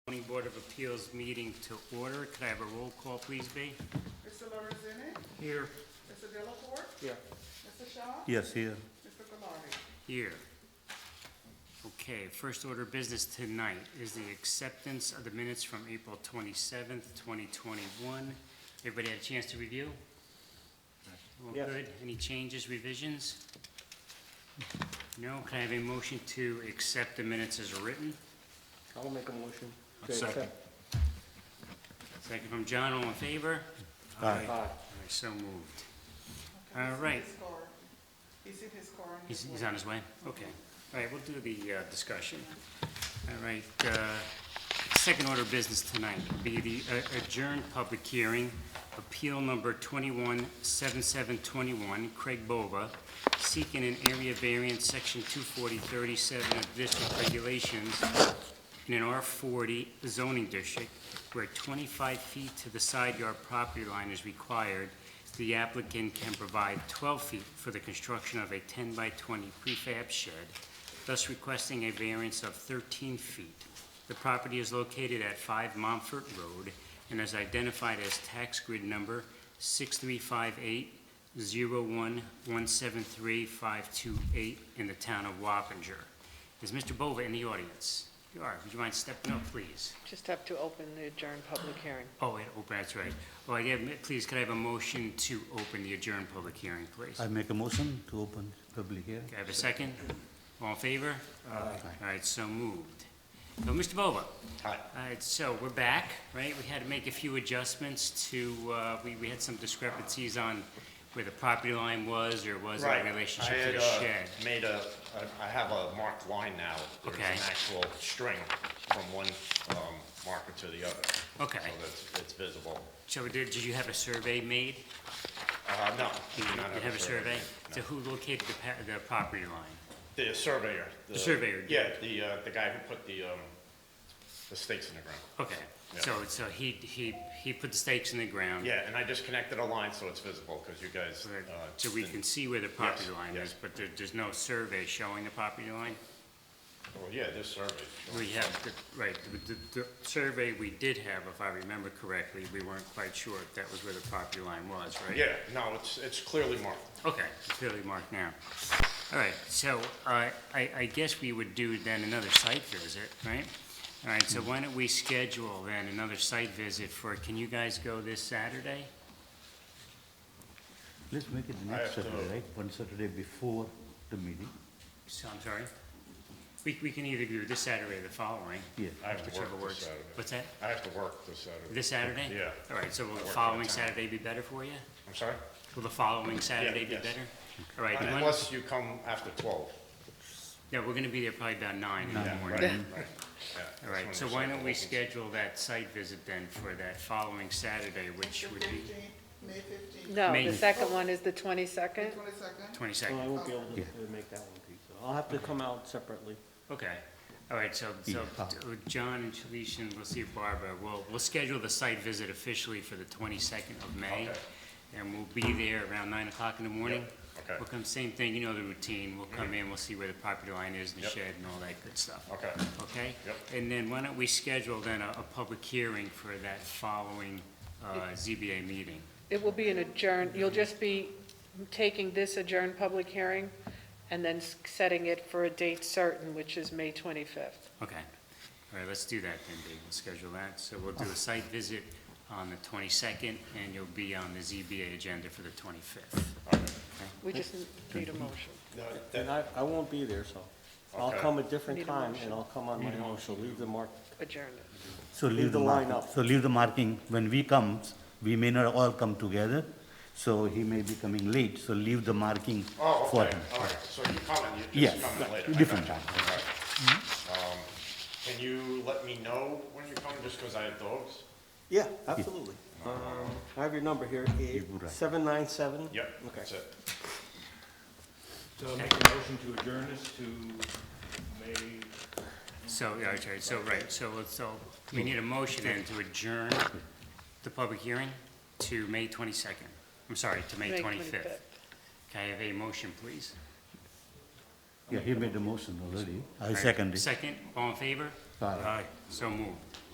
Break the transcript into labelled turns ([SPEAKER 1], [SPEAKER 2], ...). [SPEAKER 1] of Appeals meeting to order. Could I have a roll call, please, be?
[SPEAKER 2] Mr. Lorenzini,
[SPEAKER 1] Here.
[SPEAKER 2] Mr. Delacorte,
[SPEAKER 1] Here.
[SPEAKER 2] Mr. Shaw,
[SPEAKER 3] Yes, here.
[SPEAKER 2] Mr. Gallardi.
[SPEAKER 1] Here. Okay, first order of business tonight is the acceptance of the minutes from April twenty-seventh, twenty twenty-one. Everybody had a chance to review? All
[SPEAKER 3] Yes.
[SPEAKER 1] good? Any changes, revisions? No? Can I have a motion to accept the minutes as written?
[SPEAKER 3] I'll make a motion.
[SPEAKER 4] I'll second.
[SPEAKER 1] Second from John, all in favor?
[SPEAKER 3] Aye.
[SPEAKER 1] All right, so moved.
[SPEAKER 2] Okay, he's
[SPEAKER 1] All
[SPEAKER 2] in
[SPEAKER 1] right.
[SPEAKER 2] his car. He's in his car. and
[SPEAKER 1] He's, he's
[SPEAKER 2] way.
[SPEAKER 1] on his way? Okay. All right, we'll do the uh, discussion. All right, uh, second order of business tonight would be the uh, adjourned public hearing, appeal number 217721, Craig Bova, seeking an area variance, section 24037 of district regulations in an R40 zoning district where 25 feet to the side yard property line is required, the applicant can provide 12 feet for the construction of a 10 by 20 prefab shed, thus requesting a variance of 13 feet. The property is located at 5 Montfort Road and is identified as tax grid number 6358 0117352 in the town of Wappinger. Is Mr. Bova in the audience? You are. Would you mind stepping up, please?
[SPEAKER 5] Just have to open the adjourned public hearing.
[SPEAKER 1] Oh, wait, open, that's right. Well, yeah, ma- please, could I have a motion to open the adjourned public hearing, please?
[SPEAKER 3] I make a motion to open public hearing.
[SPEAKER 1] Could I have a second? All in favor? All right, so moved. So, Mr. Bova? Hi. All right, so we're back, right? We had to make a few adjustments to, uh, we, we had some discrepancies on where the property line was or was in
[SPEAKER 6] Right.
[SPEAKER 1] relationship
[SPEAKER 6] I
[SPEAKER 1] to the
[SPEAKER 6] had, uh,
[SPEAKER 1] shed.
[SPEAKER 6] Made a, I- I have a marked line now.
[SPEAKER 1] Okay.
[SPEAKER 6] There's an actual string from one um, marker to the other.
[SPEAKER 1] Okay.
[SPEAKER 6] So that's, it's visible.
[SPEAKER 1] So did, did you have a survey made?
[SPEAKER 6] Uh, no.
[SPEAKER 1] Did
[SPEAKER 6] do
[SPEAKER 1] you
[SPEAKER 6] not
[SPEAKER 1] have a survey?
[SPEAKER 6] No.
[SPEAKER 1] So who located the, pa- the property line?
[SPEAKER 6] The surveyor. The
[SPEAKER 1] surveyor did.
[SPEAKER 6] Yeah, the, uh, the guy who put the, um, the stakes in the ground.
[SPEAKER 1] Okay,
[SPEAKER 6] Yeah.
[SPEAKER 1] so, so he, he, he put the stakes in the ground?
[SPEAKER 6] Yeah, and I just connected a line so it's visible because you guys.
[SPEAKER 1] so that-
[SPEAKER 6] uh,
[SPEAKER 1] So we
[SPEAKER 6] didn't-
[SPEAKER 1] can see where the property
[SPEAKER 6] Yes,
[SPEAKER 1] line
[SPEAKER 6] yes.
[SPEAKER 1] is, but there, there's no survey showing the property line?
[SPEAKER 6] Well, yeah, this survey.
[SPEAKER 1] We have, the- right, the, the, the survey we did have, if I remember correctly, we weren't quite sure if that was where the property line was, right?
[SPEAKER 6] Yeah, no, it's, it's clearly marked.
[SPEAKER 1] Okay, it's clearly marked now. All right, so uh, I, I guess we would do then another site visit, right? All right, so why don't we schedule then another site visit for, can you guys go this Saturday?
[SPEAKER 3] Let's make it the
[SPEAKER 6] I
[SPEAKER 3] next
[SPEAKER 6] have to-
[SPEAKER 3] Saturday, right? One Saturday before the meeting.
[SPEAKER 1] So, I'm sorry? We, we can either do this Saturday or the following,
[SPEAKER 3] Yeah.
[SPEAKER 6] I have to work
[SPEAKER 1] whichever
[SPEAKER 6] this
[SPEAKER 1] works.
[SPEAKER 6] Saturday.
[SPEAKER 1] What's that?
[SPEAKER 6] I have to work this Saturday.
[SPEAKER 1] This Saturday?
[SPEAKER 6] Yeah.
[SPEAKER 1] All right, so will
[SPEAKER 6] I
[SPEAKER 1] the
[SPEAKER 6] work
[SPEAKER 1] following
[SPEAKER 6] that time.
[SPEAKER 1] Saturday be better for you?
[SPEAKER 6] I'm sorry?
[SPEAKER 1] Will the following Saturday be
[SPEAKER 6] yes.
[SPEAKER 1] better? All right, you want,
[SPEAKER 6] Unless you come after twelve.
[SPEAKER 1] yeah, we're gonna be there probably about nine in the
[SPEAKER 6] Yeah, right,
[SPEAKER 1] morning.
[SPEAKER 6] right.
[SPEAKER 1] All right, so why don't we schedule that site visit then for that following Saturday, which
[SPEAKER 2] The
[SPEAKER 1] would be
[SPEAKER 2] 15th, May fifteenth.
[SPEAKER 5] No,
[SPEAKER 1] May-
[SPEAKER 5] the second one is the
[SPEAKER 2] The
[SPEAKER 5] 22nd.
[SPEAKER 2] twenty-second.
[SPEAKER 4] Well, I
[SPEAKER 1] twenty-second?
[SPEAKER 4] won't be able to- to make that one, Pete, so I'll have to come out separately.
[SPEAKER 1] Okay, all right, so, so,
[SPEAKER 3] Yeah.
[SPEAKER 1] uh, John and Shalish and we'll see if Barbara, we'll, we'll schedule the site visit officially for the twenty-second of May.
[SPEAKER 6] Okay.
[SPEAKER 1] And we'll be there around nine o'clock in the morning.
[SPEAKER 6] okay. Mm-hmm.
[SPEAKER 1] We'll come, same thing, you know the routine, we'll come in, we'll see where the property line is and the
[SPEAKER 6] Yep.
[SPEAKER 1] shed and all that good stuff.
[SPEAKER 6] Okay,
[SPEAKER 1] Okay?
[SPEAKER 6] Yep.
[SPEAKER 1] And then why don't we schedule then a, a public hearing for that following, uh, ZBA meeting?
[SPEAKER 5] It will be an adjourned, you'll just be taking this adjourned public hearing and then s- setting it for a date certain, which is May 25th.
[SPEAKER 1] Okay. All right, let's do that then, Dave. We'll schedule that. So we'll do a site visit on the twenty-second, and you'll be on the ZBA agenda for the twenty-fifth.
[SPEAKER 5] We just need a motion.
[SPEAKER 6] No,
[SPEAKER 4] And
[SPEAKER 6] that-
[SPEAKER 4] I, I won't be there, so I'll
[SPEAKER 6] Okay.
[SPEAKER 4] come a
[SPEAKER 5] Need
[SPEAKER 4] different
[SPEAKER 5] a
[SPEAKER 4] time
[SPEAKER 5] motion.
[SPEAKER 4] and I'll come on my own, so leave the mark.
[SPEAKER 5] Adjourned it.
[SPEAKER 3] So
[SPEAKER 4] Leave the line
[SPEAKER 3] marking-
[SPEAKER 4] up.
[SPEAKER 3] So leave the marking, when we comes, we may not all come together, so he may be coming late, so leave the marking
[SPEAKER 6] oh,
[SPEAKER 3] for
[SPEAKER 6] okay,
[SPEAKER 3] him.
[SPEAKER 6] all right, so you're coming, you're
[SPEAKER 3] Yes,
[SPEAKER 6] just coming later. I
[SPEAKER 3] different
[SPEAKER 6] got you.
[SPEAKER 3] time.
[SPEAKER 6] All right. Um, Can you let me know when you're coming, just because I have dogs?
[SPEAKER 4] Yeah, absolutely. Um, I have your number here, eight,
[SPEAKER 3] would write.
[SPEAKER 4] seven nine seven?
[SPEAKER 6] Yep,
[SPEAKER 4] Okay.
[SPEAKER 6] that's it.
[SPEAKER 7] So I'll make a motion to adjourn this to May,
[SPEAKER 1] So, all right, all right, so, right, so, let's- so we need a motion then to adjourn the public hearing to May twenty-second. I'm sorry, to May twenty-fifth. Can I have a motion, please?
[SPEAKER 3] Yeah, he made the motion already. I
[SPEAKER 1] All right,
[SPEAKER 3] second it.
[SPEAKER 1] Second, all in favor?
[SPEAKER 3] Aye.
[SPEAKER 1] So moved.